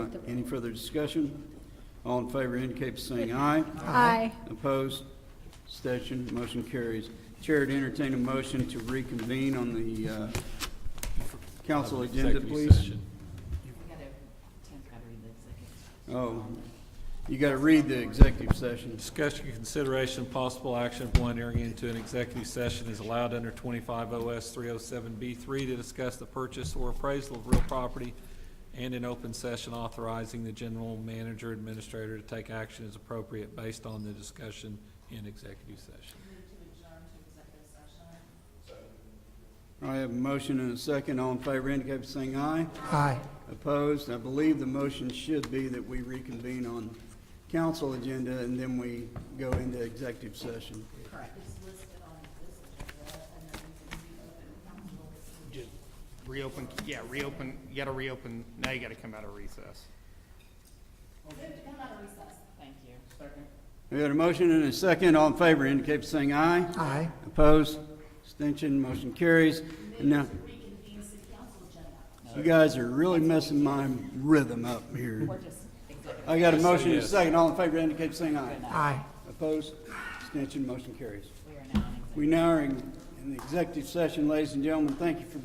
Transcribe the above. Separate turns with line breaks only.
Any further discussion? All in favor indicate by saying aye.
Aye.
Opposed? Abstention, motion carries. Chair would entertain a motion to reconvene on the uh, council agenda,
Executive
please.
session.
I gotta, Tim's gotta read the executive.
Oh, you got to read the executive session.
Discussion, consideration, possible action of one entering into an executive session is allowed under twenty-five OS three oh seven B three to discuss the purchase or appraisal of real property and an open session authorizing the general manager administrator to take action as appropriate based on the discussion in executive session.
I have a motion and a second. All in favor indicate by saying aye.
Aye.
Opposed? I believe the motion should be that we reconvene on council agenda and then we go into executive session.
Just reopen, yeah, reopen, you gotta reopen, now you gotta come out of recess.
Come out of recess. Thank you. Second.
We got a motion and a second. All in favor indicate by saying aye.
Aye.
Opposed? Abstention? Motion carries. And now,
Reconvene city council agenda.
you guys are really messing my rhythm up here.
Or just executive.
I got a motion and a second. All in favor indicate by saying aye.
Aye.
Opposed? Abstention? Motion carries.
We
We
are now in executive.
now are in in the executive session, ladies and gentlemen. Thank you for